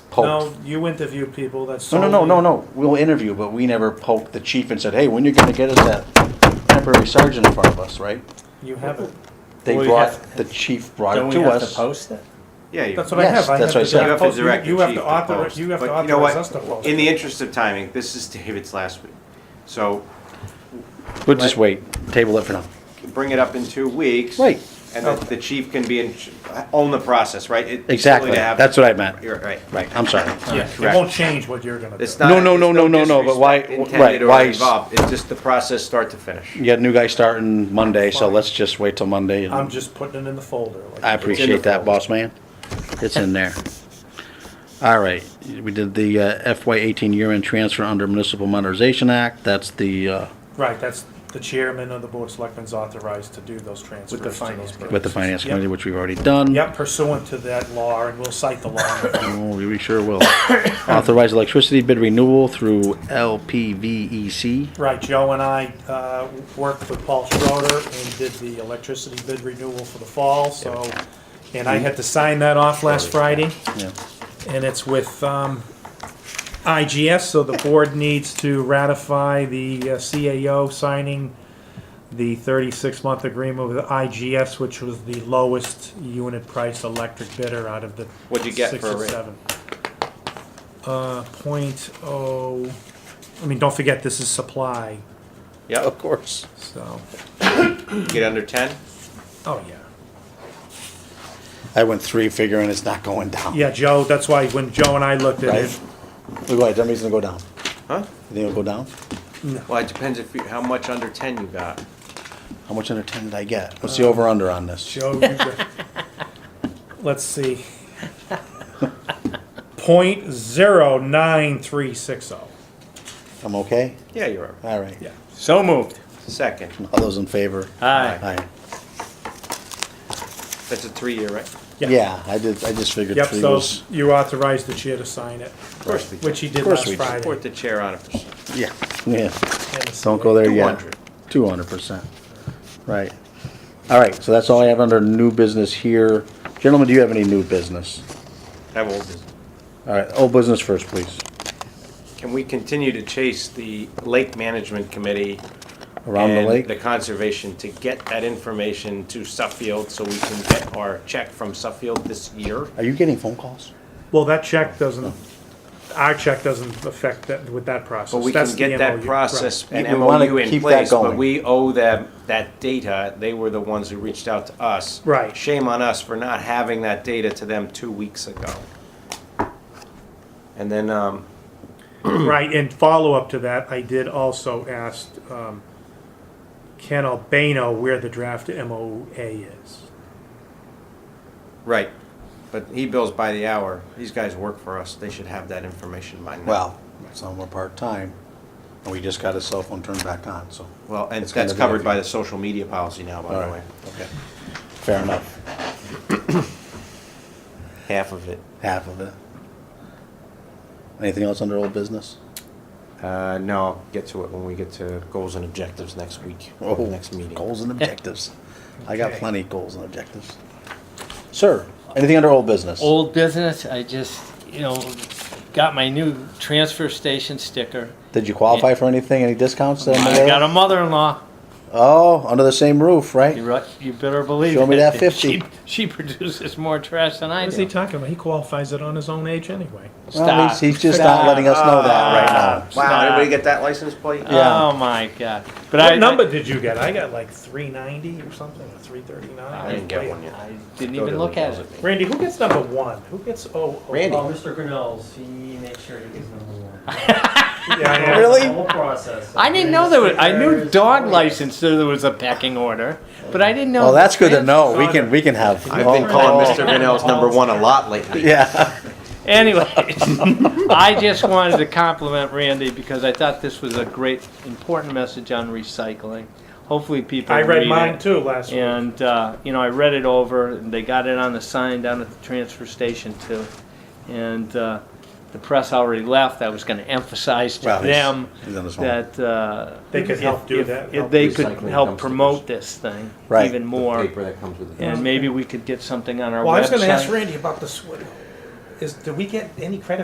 poked. No, you interview people, that's. No, no, no, solely- no, no, we'll interview, but we never poked the chief and said, hey, when you gonna get us that temporary sergeant in front of us, right? You haven't. They Well, you brought, have- the chief brought Don't it we to have to us. post it? Yeah, you- That's what I Yes, have. I that's what have I to- said. You have to post- direct the you have chief to to author- post. You have to But you know authorize what? us to post. In the it. interest of timing, this is David's last week. So We'll just wait, table it for now. bring it up in two weeks. Right. And the- the chief can be, in own the process, right? It- it's silly Exactly, to have- that's what I meant. You're right. Right, I'm sorry. Yeah, correct. it won't change what you're gonna do. It's not. No, no, no, there's no, no, no, but why- disrespect right, Intended why or is- involved. It's just the process, start to finish. You got a new guy starting Monday, so let's just wait till Monday. and- I'm just putting it in the folder. like- I appreciate that, boss man. It's in there. All right, we did the uh, FY eighteen year-end transfer under Municipal Modernization Act. That's the, uh, Right, that's the chairman of the board of selectmen's authorized to do those transfers. to those finance purposes. with the Finance Yep. Committee, which we've already done. Yep, pursuant to that law, and we'll cite the law. Oh, we sure will. Authorize electricity bid renewal through LPVEC. Right, Joe and I uh, worked with Paul Schroeder and did the electricity bid renewal for the fall, so, and I had to sign that off last Friday, Yeah. and it's with um, IGS, so the board needs to ratify the uh, CAO signing the 36-month agreement with IGS, which was the lowest unit price electric bidder out of the What'd you get six for a and rate? seven. Uh, point oh, I mean, don't forget, this is supply, Yeah, Of course. so, get under ten? oh, yeah. I went three figuring it's not going down. Yeah, Joe, that's why when Joe and I looked at Right? it, Look, why, that means it's gonna go down. Huh? You think it'll go down? Well, it depends if, you- how much under ten you got. How much under ten did I get? What's the over-under on this? Joe, you go- let's see. Point zero nine three six oh. I'm okay? Yeah, you're all right. All right. So moved. Second, All those in favor? Aye. Aye. that's a three-year, right? Yeah, I did, I just figured Yep, three so was, you authorized the chair to sign it, Of course we do. which he did Of course last we did. Friday. Support the chair on a percent. yeah, yeah. and the Don't go there yet. 200. Two hundred percent. Right. All right, so that's all I have under new business here. Gentlemen, do you have any new business? Have old business. All right, old business first, please. Can we continue to chase the Lake Management Committee? Around the and lake? The conservation to get that information to Suffield so we can get our check from Suffield this year? Are you getting phone calls? Well, that check doesn't, Oh. our check doesn't affect that with that process. But we That's can the get that MOU, process right. and We wanna MOU in keep that place, but going. we owe them that data. They were the ones who reached out to us. Right. Shame on us for not having that data to them two weeks ago. And then, um, Right, Right, and follow-up to that, I did also ask um, Ken Albano where the draft MOA is. right, but he bills by the hour. These guys work for us. They should have that information by now. Well, some were part-time, and we just got his cell phone turned back on, so. Well, and It's gonna that's be covered a- by the social media policy now, by the Alright. way. Okay. Fair enough, Half of it. half of it. Anything else under old business? Uh, no, I'll get to it when we get to goals and objectives next week, Oh, next meeting. Goals and objectives. I got Okay. plenty of goals and objectives. Sir, anything under old business? Old business, I just, you know, got my new transfer station sticker. Did you qualify for anything, any discounts? that I'm aware I of? got a mother-in-law. Oh, under the same roof, right? You ru- you better believe it. Show me that 50. She- She produces more trash than I What is he do. talking about? He qualifies it on his own age anyway. Well, he's, Stop. he's just not letting us know that right now. Stop. Wow, everybody get that license plate? Yeah. Oh, my God. But I- What I- number did you get? I got like 390 or something, or 339. I didn't get one yet. I didn't even look at it. Randy, who gets number one? Who gets oh? oh, Randy. Oh, oh, Mr. Grinnell's, he makes sure he gets number one. yeah, yeah. Really? The whole process. I didn't know there was, I knew dog license, so there was a pecking order, but I didn't know. Well, that's good to know. We can, we can have. I've been calling Mr. Grinnell's number one a lot lately. Yeah. Anyways, I just wanted to compliment Randy because I thought this was a great, important message on recycling. Hopefully people I read mine it. too last week. And, uh, you know, I read it over and they got it on the sign down at the transfer station too. And, uh, the press already left. I was gonna emphasize to Well, he's- them he's on his phone. that, uh. They could if- help do if- that, If help they could recycling help dumpsters. promote this thing Right. even more. that comes with And maybe we could get something on our website. well, I was going to ask Randy about the swim. Is do we get any credit?